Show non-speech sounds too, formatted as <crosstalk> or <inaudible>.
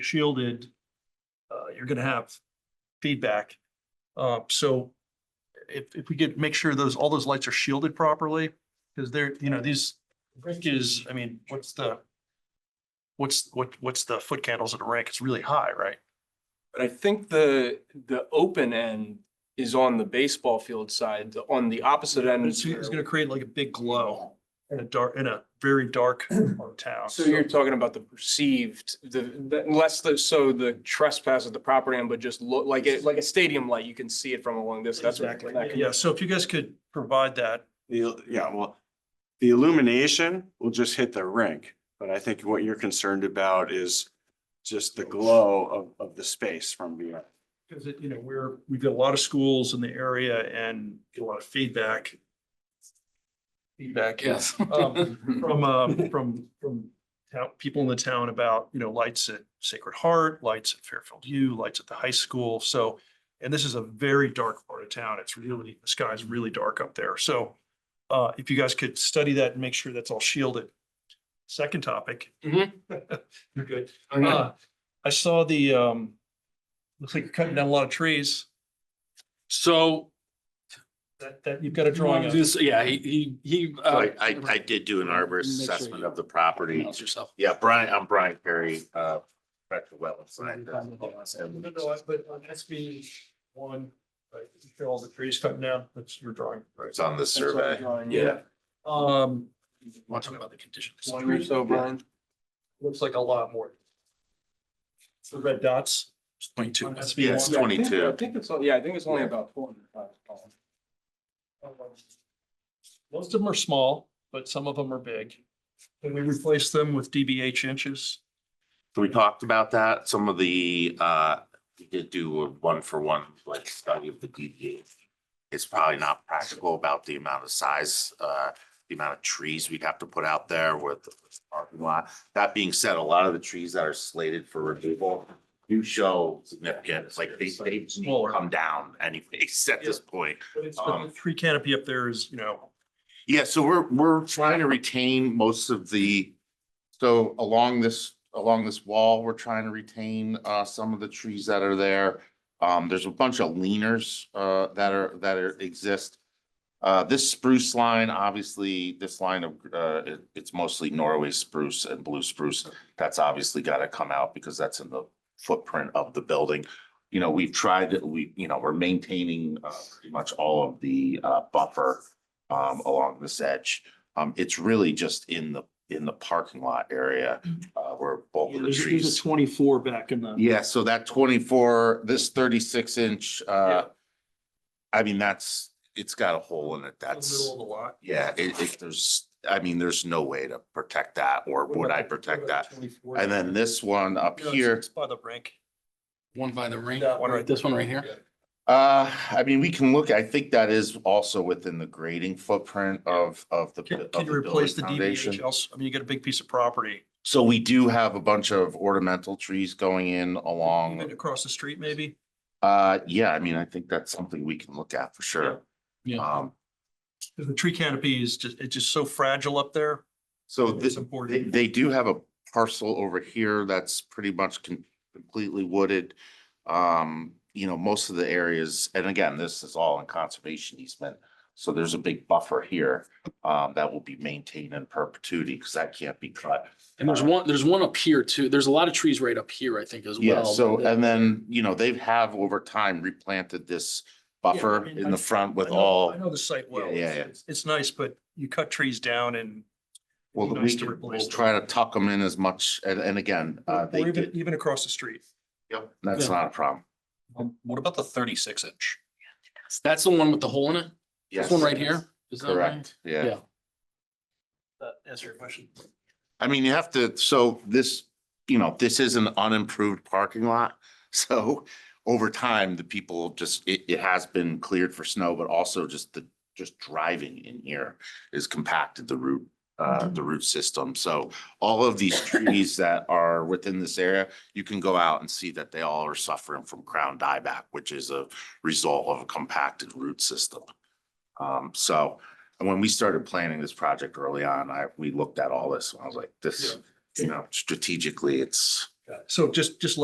shielded, uh, you're gonna have feedback. Uh, so if, if we could make sure those, all those lights are shielded properly, because they're, you know, these rink is, I mean, what's the what's, what, what's the foot candles at a rink? It's really high, right? But I think the, the open end is on the baseball field side, the- on the opposite end. It's, is it's where- gonna create like a big glow in a dark, in a very dark town. So you're talking about the perceived, the, the- less the, so the trespass at the property end, but just look like it, like a stadium light, you can see it from along this, that's. what- Exactly. that can- Yeah, so if you guys could provide that, The, yeah, well, the illumination will just hit the rink, but I think what you're concerned about is just the glow of, of the space from beyond. Because it, you know, we're, we've got a lot of schools in the area and get a lot of feedback. Feedback. <laughs> Yes. Um, From, um, from, from town, people in the town about, you know, lights at Sacred Heart, lights at Fairfield U, lights at the high school. So, and this is a very dark part of town. It's really, the sky's really dark up there. So uh, if you guys could study that and make sure that's all shielded. Second topic. Mhm. <laughs> You're good. Uh, Uh, I saw the, um, looks like you're cutting down a lot of trees. So. That, that, you've got a drawing of. This- Yeah, he, he, he. uh, So I, I, I did do an arborist assessment of the property. Pronounce yourself. Yeah, Brian, I'm Brian Perry, uh, Director of Wetlands uh, Science. No, no, I- but on SB one, right, you show all the trees cutting down, that's your drawing. It's on the survey. Yeah. Um, Want to talk about the conditions. One or so, Brian. looks like a lot more. The red dots. Point two. on SB1. Yeah, it's Yeah, I think- I twenty-two. think it's, yeah, I think it's only about four hundred five. Most of them are small, but some of them are big. And we replace them with DBH inches. So we talked about that. Some of the, uh, we did do a one-for-one, like, study of the DDA. It's probably not practical about the amount of size, uh, the amount of trees we'd have to put out there with the parking lot. That being said, a lot of the trees that are slated for removal do show significant, like, they, they need to come down anyways <laughs> at this point. But it's, but the tree canopy up there is, you know, Yeah, so we're, we're trying to retain most of the, so along this, along this wall, we're trying to retain, uh, some of the trees that are there. Um, there's a bunch of leaners, uh, that are, that are, exist. Uh, this spruce line, obviously, this line of, uh, it- it's mostly Norway spruce and blue spruce. That's obviously gotta come out because that's in the footprint of the building. You know, we've tried, we, you know, we're maintaining, uh, pretty much all of the, uh, buffer um, along this edge. Um, it's really just in the, in the parking lot area, uh, where both of the Mm. there's there's a trees. twenty-four back in the. Yeah, so that twenty-four, this thirty-six inch, uh, I mean, that's, it's got a hole in it. the Middle That's, of the lot. yeah, it, it, there's, I mean, there's no way to protect that or What would about I the- what protect about the that? 24? And then this one up No, it's- here, It's by the rink. One by the ring. That one right This one right here. uh, I mean, we can look, I think that is also within the grading footprint of, of the. Can, of can you replace the building foundation. DBH else? I mean, you got a big piece of property, So we do have a bunch of ornamental trees going in even along, across the street maybe? uh, yeah, I mean, I think that's something we can look at for sure. Yeah. Yeah. Um, 'Cause the tree canopy is just, it's just so fragile up there. so It's this, they, important. they do have a parcel over here that's pretty much con- completely wooded. Um, you know, most of the areas, and again, this is all in conservation easement. So there's a big buffer here, um, that will be maintained in perpetuity because that can't be cut. And there's one, there's one up here too. There's a lot of trees right up here, I think, as well. Yeah, so, and then, you know, they have over time replanted this buffer mean, in I- the front I with know- all. I know the site well. Yeah, yeah, yeah. It's- It's nice, but you cut trees down and Well, be the nice to weekend, replace we'll them. try to tuck them in as much, and, and again, uh, or they even, did, even across the street. Yep, that's not a problem. What about the thirty-six inch? That's the one with the hole in it? This Yes, one right here? Is that right? Correct, yeah. Yeah. That answer your question. I mean, you have to, so this, you know, this is an unimproved parking lot. <laughs> So over time, the people just, it, it has been cleared for snow, but also just the, just driving in here is compacted the root, uh, the root system. So all of these trees that are within this area, you can go out and see that they all are suffering from crown dieback, which is a result of a compacted root system. Um, so and when we started planning this project early on, I, we looked at all this and I was like, this, you know, strategically, it's, So just, just